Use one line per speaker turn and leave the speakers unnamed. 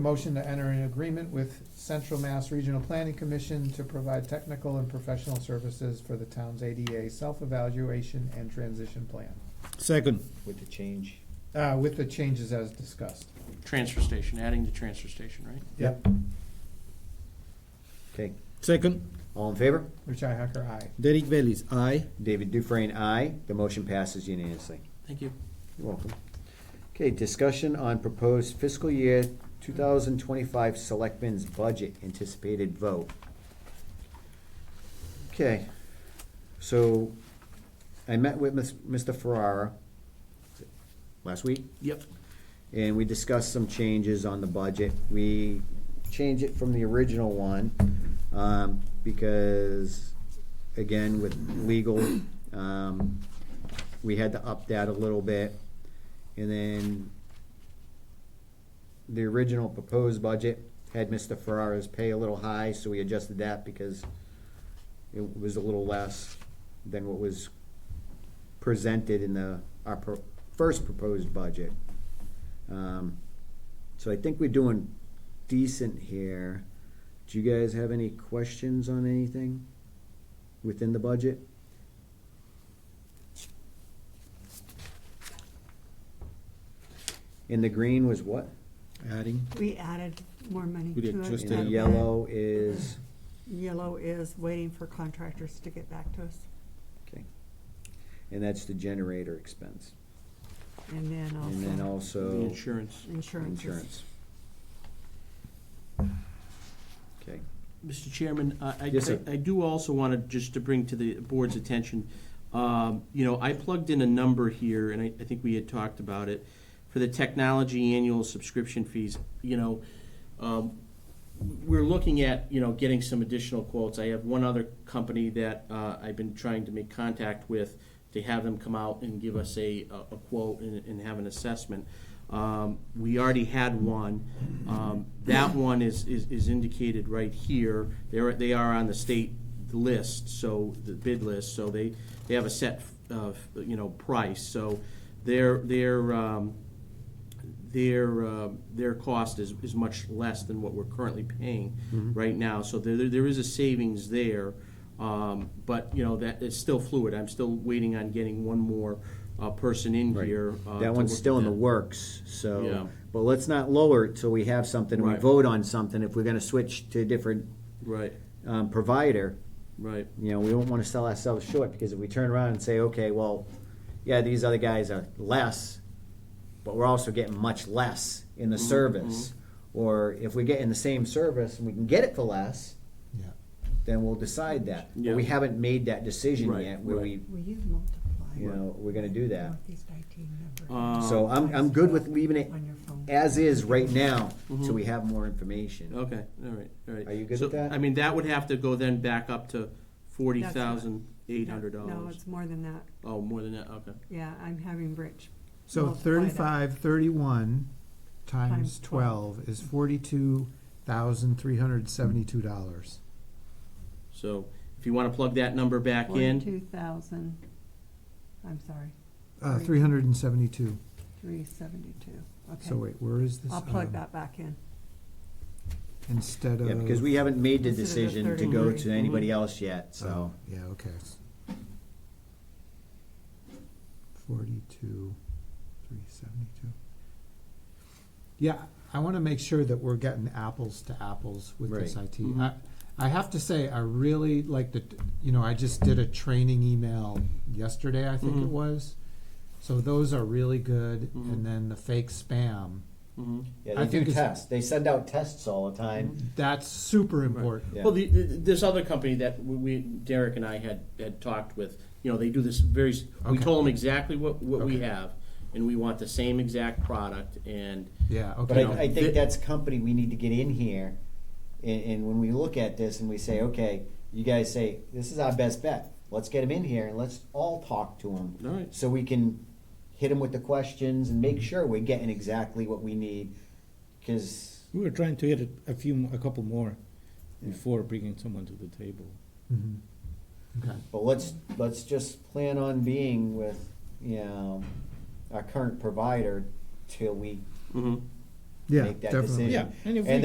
Motion to enter an agreement with Central Mass Regional Planning Commission to provide technical and professional services for the town's ADA self-evaluation and transition plan,
Second.
with the change.
uh, with the changes as discussed.
Transfer station, adding the transfer station, right?
Yep.
Okay,
Second.
all in favor?
Richi Hacker, aye.
Derek Bellis, aye.
David Dufresne, aye. The motion passes unanimously.
Thank you.
You're welcome. Okay, discussion on proposed fiscal year two thousand twenty-five selectmen's budget anticipated vote. Okay, so I met with Ms- Mr. Ferrara last week.
Yep.
and we discussed some changes on the budget. We changed it from the original one, um, because, again, with legal, um, we had to up that a little bit. And then the original proposed budget had Mr. Ferrara's pay a little high, so we adjusted that because it was a little less than what was presented in the, our pro- first proposed budget. Um, So I think we're doing decent here. Do you guys have any questions on anything within the budget? In the green was what?
Adding.
We added more money
We
to
did
it.
just Stay.
In the
and
yellow is,
then Yellow is waiting for contractors to get back to us.
okay. And that's the generator expense.
And then
And then
also
Oh, The
also
insurance.
insurance.
insurance. Okay,
Mr. Chairman, I, I-
Yes, sir.
I do also want to, just to bring to the board's attention, um, you know, I plugged in a number here, and I, I think we had talked about it, for the technology annual subscription fees, you know, um, we're looking at, you know, getting some additional quotes. I have one other company that uh, I've been trying to make contact with to have them come out and give us a, a a quote and, and have an assessment. Um, We already had one. Um, That one is, is is indicated right here. They're, they are on the state list, so, the bid list, so they, they have a set, uh, you know, price. So they're, they're, um, their, uh, their cost is, is much less than what we're currently paying
Mm-hmm.
right now. So there, there is a savings there, um, but, you know, that is still fluid. I'm still waiting on getting one more uh, person in
Right.
here. uh, to
That one's
look
still
at
in the
that.
works, so,
Yeah.
but let's not lower it till we have something, and we
Right.
vote on something, if we're gonna switch to a different,
Right,
um, provider,
right.
you know, we don't wanna sell ourselves short, because if we turn around and say, okay, well, yeah, these other guys are less, but we're also getting much less in
Mm-hmm,
the service, or if we get in the same service and we can get it for less,
Yeah.
then we'll decide that, but we
Yeah.
haven't made that decision
Right,
yet, where
right.
we,
Will you multiply?
you know, we're gonna do that.
Northeast IT number
Um,
So I'm, I'm good with leaving it
on your phone.
as is right now, so
Mhm.
we have more information.
Okay, all right, all right.
Are you good
So,
with that?
I mean, that would have to go then back up to forty thousand eight hundred
No,
dollars.
it's more than that.
Oh, more than that, okay.
Yeah, I'm having Rich.
So
multiply that.
thirty-five, thirty-one times
Times twelve.
twelve is forty-two thousand, three hundred seventy-two dollars.
So if you want to plug that number back in,
Forty-two thousand, I'm sorry,
Uh,
Right.
three hundred and seventy-two.
three seventy-two.
So
Okay,
wait, where is this?
I'll plug
Um,
that back in.
Instead of.
Yeah, because we haven't made the
Instead of the
decision to go
33.
to anybody else yet,
Oh,
so.
yeah, okay. S- Forty-two, three seventy-two. Yeah, I wanna make sure that we're getting apples to apples with this
Right.
IT.
Mhm.
I, I have to say, I really like the, you know, I just did a training email yesterday, I think it
Mhm.
was. So those are really good,
Mhm.
and then the fake spam,
mhm.
Yeah,
I think it's- Mm-hmm.
They send out tests all the time.
that's super important.
Yeah.
Well, the, the, this other company that we- we, Derek and I had, had talked with, you know, they do this very, s- we
Okay.
told them exactly what, what we
Okay.
have, and we want the same exact product, and,
Yeah,
But
okay.
You know,
I, I
thi-
think that's company we need to get in here, and, and when we look at this and we say, okay, you guys say, this is our best bet. Let's get them in here and let's all talk to them.
all right,
So we can hit them with the questions and make sure we're getting exactly what we need, because
We were trying to get a- a few, mo- a couple more before bringing someone to the table.
Mhm. Okay.
But let's, let's just plan on being with, you know, our current provider till we
mm-hmm,
Yeah,
make that
definitely.
decision.
Yeah, and if
And
we